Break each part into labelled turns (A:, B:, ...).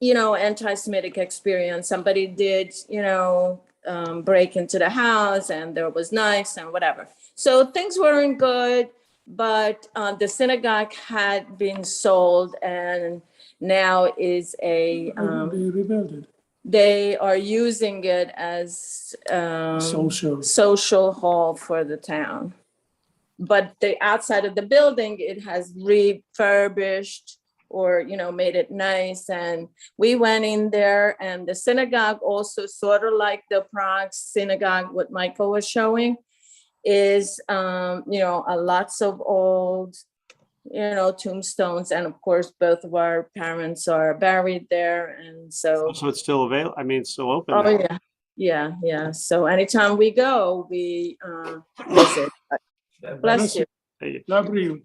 A: you know, anti-Semitic experience. Somebody did, you know, um, break into the house and there was knives and whatever. So things weren't good, but uh, the synagogue had been sold and now is a,
B: Will
A: um,
B: be rebuilt.
A: they are using it as um,
B: Social.
A: social hall for the town. But the outside of the building, it has refurbished or, you know, made it nice. And we went in there and the synagogue also sort of like the Prague synagogue, what Michael was showing is, um, you know, a lots of old, you know, tombstones. And of course, both of our parents are buried there. And so.
C: So it's still available. I mean, it's still open.
A: Oh,
C: now.
A: yeah, yeah, yeah. So anytime we go, we uh, visit. Bless you.
B: Labrie,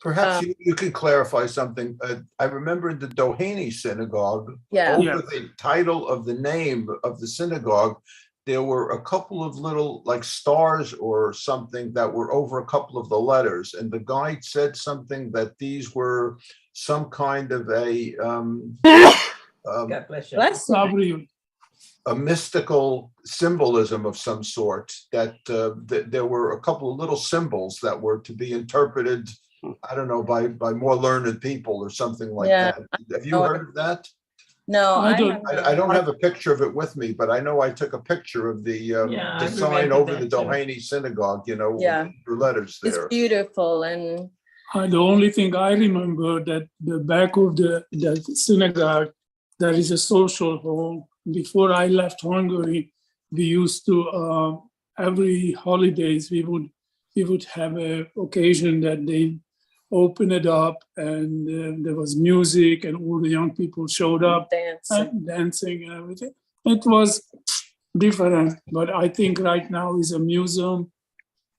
D: Perhaps
A: Um,
D: you, you could clarify something. Uh, I remember the Doheny Synagogue,
A: Yeah,
B: Yeah.
D: over the title of the name of the synagogue, there were a couple of little like stars or something that were over a couple of the letters. And the guide said something that these were some kind of a um, um,
E: God bless you.
A: bless you.
B: Labrie,
D: a mystical symbolism of some sort, that uh, th- there were a couple of little symbols that were to be interpreted, I don't know, by, by more learned people or something like
A: Yeah,
D: that. Have you heard of that?
A: No,
B: I
A: I
B: don't-
A: haven't.
D: I, I don't have a picture of it with me, but I know I took a picture of the, um,
E: Yeah,
D: the
E: I
D: sign
E: remember
D: over the
E: that too.
D: Doheny Synagogue, you know, with
A: Yeah.
D: your letters
A: It's
D: there.
A: beautiful and
B: uh, the only thing I remember that the back of the, the synagogue, there is a social hall. Before I left Hungary, we used to, uh, every holidays, we would, we would have a occasion that they open it up and uh, there was music and all the young people showed up.
A: dancing.
B: and dancing and everything. It was different, but I think right now is a museum.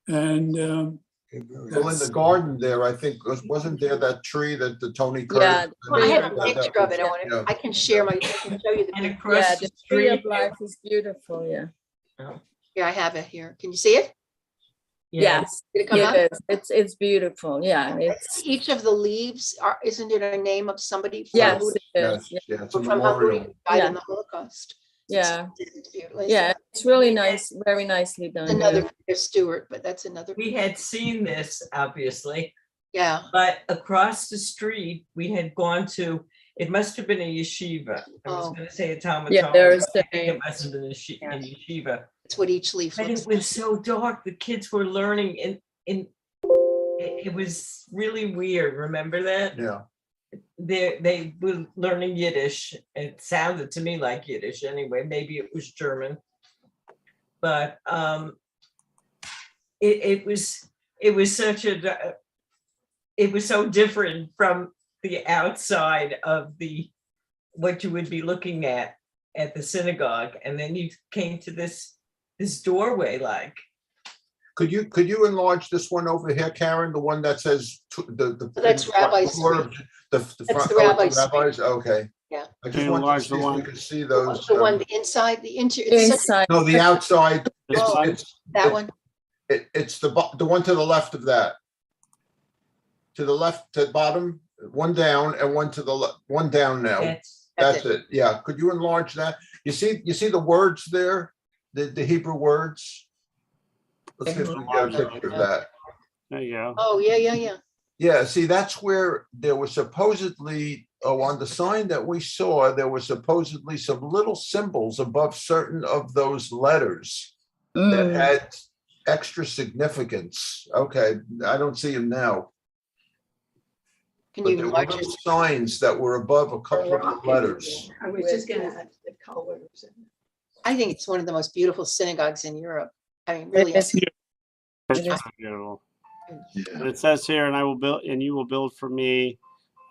B: And um,
D: Well, in the garden there, I think, was- wasn't there that tree that the Tony
A: Yeah,
D: Curtis?
F: I have a
D: that- that-
F: picture of it. I want
D: yeah.
F: to, I can share my, I can show you the
E: And
F: picture.
A: Yeah,
E: across the
A: the tree of
E: street.
A: life is beautiful, yeah.
F: Here, I have it here. Can you see it?
E: yeah,
A: Yes,
F: Did it come
G: Uh-huh.
F: up?
A: it is. It's, it's beautiful, yeah, it's,
F: Each of the leaves are, isn't it a name of somebody? from
A: yes,
F: who-
A: it is.
D: Yes, yeah, it's a
F: From Hungary,
D: memorial.
F: who died
A: Yeah.
F: in the Holocaust.
A: yeah,
F: It's beautiful. It's
A: yeah, it's really nice, very nicely done. yeah.
F: Another Peter Stewart, but that's another,
E: we had seen this, obviously,
F: yeah.
E: but across the street, we had gone to, it must have been a yeshiva. I was
F: Oh.
E: gonna say a Talmud.
A: Yeah,
E: Talmud,
A: there's
E: but I think
A: a-
E: It must have been a yeshi-
A: Yeah.
E: a yeshiva.
F: It's what each leaf
E: But
F: looks
E: it
F: like.
E: was so dark, the kids were learning in, in, it it was really weird, remember that?
D: Yeah.
E: They, they were learning Yiddish. It sounded to me like Yiddish anyway, maybe it was German. But, um, it, it was, it was such a, di- it was so different from the outside of the, what you would be looking at, at the synagogue. And then you came to this this doorway like
D: Could you, could you enlarge this one over here, Karen, the one that says t- the, the.
F: That's
D: the front
F: Rabbi
D: door of The. the
F: That's
D: front-
F: the
D: oh,
F: Rabbi Suite.
D: Rabbis, okay.
F: Yeah.
D: I
C: Can
D: just
C: you
D: wanted
C: enlarge
D: to
C: the
D: see if we
C: one-
D: could see those.
F: The one
D: um,
F: inside, the interior, it's such-
A: Inside,
D: No, the outside,
C: This
F: Oh.
C: one?
D: it's,
F: that one.
D: it, it's the, bo- the one to the left of that. To the left, to the bottom, one down and one to the, le- one down now.
E: that's
F: That's
D: That's it, yeah. Could you enlarge that? You see, you see the words there, the, the Hebrew words? Let's see if we can get a picture of that.
C: There you go.
F: Oh, yeah, yeah, yeah.
D: Yeah, see, that's where there was supposedly, oh, on the sign that we saw, there were supposedly some little symbols above certain of those letters
F: Hmm.
D: that
A: Mm,
D: had extra significance. Okay, I don't see them now.
F: Can
D: But
F: you
D: there were
F: enlarge it?
D: little signs that were above a couple of the letters.
G: I was
A: Mm.
G: just gonna ask the colors.
F: I think it's one of the most beautiful synagogues in Europe. I mean, really.
A: it is-
C: That's
A: It is-
C: so beautiful.
D: Yeah.
C: It says here, and I will build, and you will build for me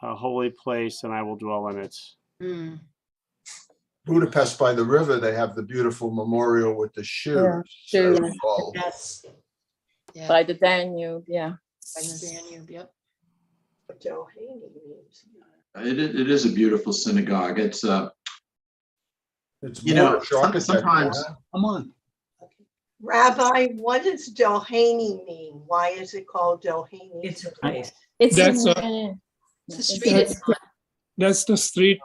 C: a holy place, and I will dwell in it.
F: Mm.
D: Budapest by the river, they have the beautiful memorial with the shoes.
A: shoes.
D: as well.
G: Yes.
F: Yeah.
A: By the Danube, yeah.
F: By the Danube, yep.
G: Johanny means.
H: It, i- it is a beautiful synagogue. It's, uh,
D: It's
H: you know,
D: Moorish
H: some-
D: architecture,
H: sometimes,
D: huh?
H: come on.
G: Rabbi, what does Johanny mean? Why is it called Johanny?
E: it's a place
A: It's. in
B: That's a-
A: Danube. Yeah,
F: It's the
A: it's
F: street
A: in-
F: it's on.
B: That's the street